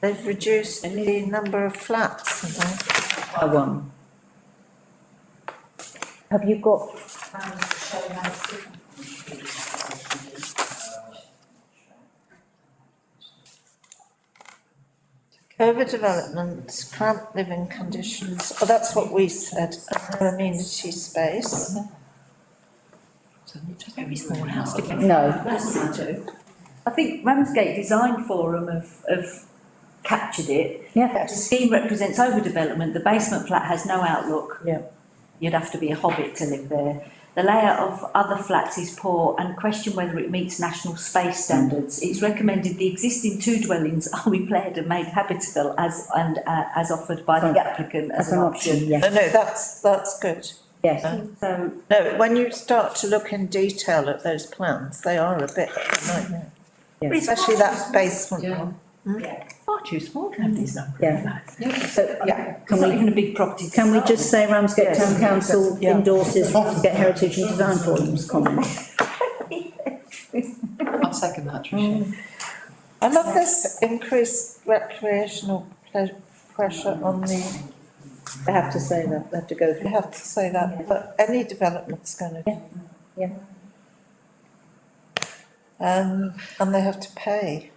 They've reduced the number of flats, haven't they? by one. Have you got, Overdevelopment, cramped living conditions, oh, that's what we said, and no amenity space. Very small house to get. no, I think Ramsgate Design Forum have, have captured it. yeah, Yes. The scheme represents overdevelopment, the basement flat has no outlook. Yeah. You'd have to be a hobbit to live there. The layout of other flats is poor and question whether it meets national space standards. It's recommended the existing two dwellings are repaired and made habitable as, and, uh, as offered by the applicant as as an option, yeah, No, no, that's, that's good. yes. So No, when you start to look in detail at those plans, they are a bit of a nightmare. Yeah. Especially that basement one. Far too small to have these number Yeah. of flats. So Yeah. It's not can we, even a big property. to can we start just say Ramsgate Yes. Town Council Yeah. endorses Ramsgate Heritage and Design Forum's comment? I'll second that, Tricia. I love this increased recreational ple- pressure on the, They have to say that, they have to go you through. have to say that, but any development's gonna. Yeah, yeah. Um, and they have to pay.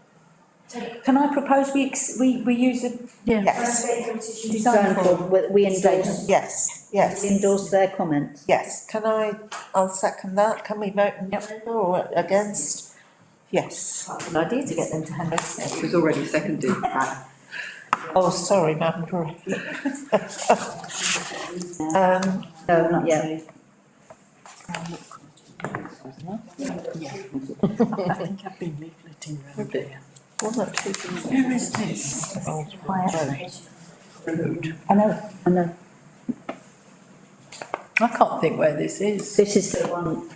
with. Can I propose we, ex- we, we use the Yes, Design design form? Forum, we- we endorse, yes, we yes, endorse their comments. yes. Can I, I'll second that. Can we vote in favour or against? Yes. Quite a Good idea to get them to hand us. It was already seconded. Oh, sorry, Madam Director. Um, No, not yet. I think I've been leafleting round there. Well, not too bad. Where is this? Road. I know, I know. I can't think where this is. This is the one o-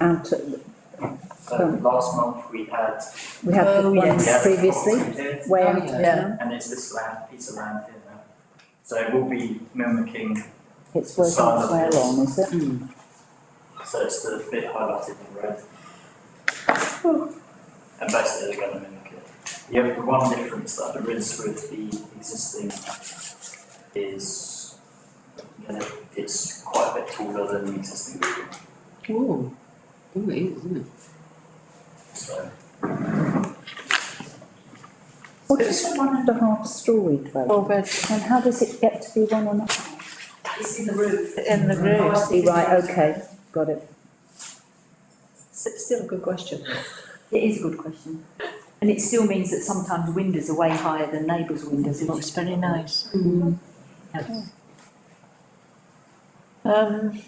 out, at- So last month we had. we had the one Oh, we had previously, property here, way Oh, out of yeah. town. And it's this land, piece of land here now. So it will be mimicking, It's working its way along, is it? so it's the bit highlighted in red. And basically they're gonna mimic it. The only one difference that there is with the existing is, you know, it's quite a bit taller than the existing building, Ooh, ooh, it is, isn't it? so. What is a one and a half storey dwelling? Four beds And how does it get to be one and a half? It's in the roof. in the room. I see, Right, okay, got it. It's still a good question. It is a good question. And it still means that sometimes windows are way higher than neighbours' windows, which is very nice. Um,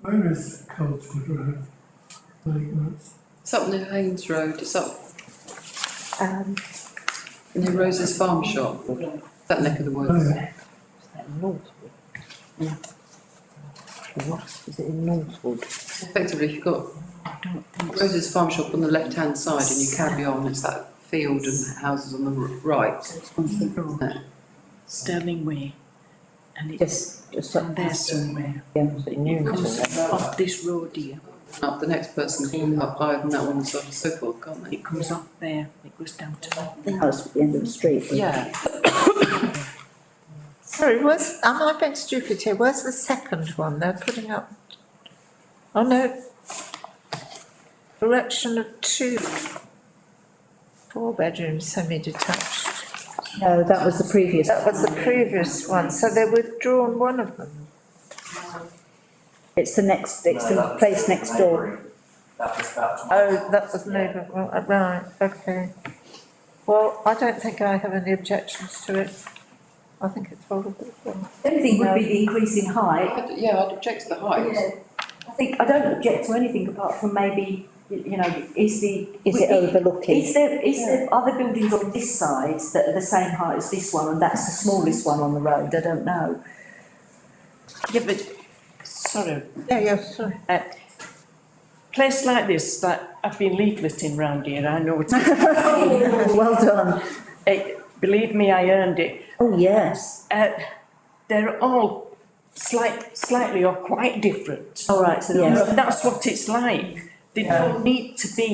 Where is Coldwood Road? Like, that's It's up near Haynes Road, it's up um, near Rose's Farm Shop, that neck of the woods. Oh, Effectively, if you've got Rose's Farm Shop on the left-hand side and you carry on, it's that field and houses on the r- right. isn't it? Sterling Way. And it's Just, just down up there past, somewhere, yeah. comes off this road here, Up, the next person can come up higher than that one and so on and so forth, can't they? it comes off there, it goes down to. the house at the end of the street. Yeah, sorry, where's, am I being stupid here? Where's the second one they're putting up? Oh, no. Erection of two four-bedroom semi-detached. No, Uh, that was the previous. That was the previous one, so they withdrawn one of them. It's the next, it's No, that the was place next door. neighbouring. That was that one. Oh, that was Yeah. neighbour, right, right, okay. Well, I don't think I have any objections to it. I think it's horrible. The only thing would be the increase in height. I'd- yeah, I'd object to the height. I think, I don't object to anything apart from maybe, y- you know, is the. Is it overlooking? Is there, is there other buildings on this side that are the same height as this one and that's the smallest one on the road? I don't know. Yeah, but sort of, Yeah, yeah, sorry. place like this, like I've been leafleting round here, I know it is. Well done. Eh, Believe me, I earned it. Oh, yes. Uh, they're all slight, slightly or quite different. All right, so. there Yeah. are- That's what it's like. They don't need to be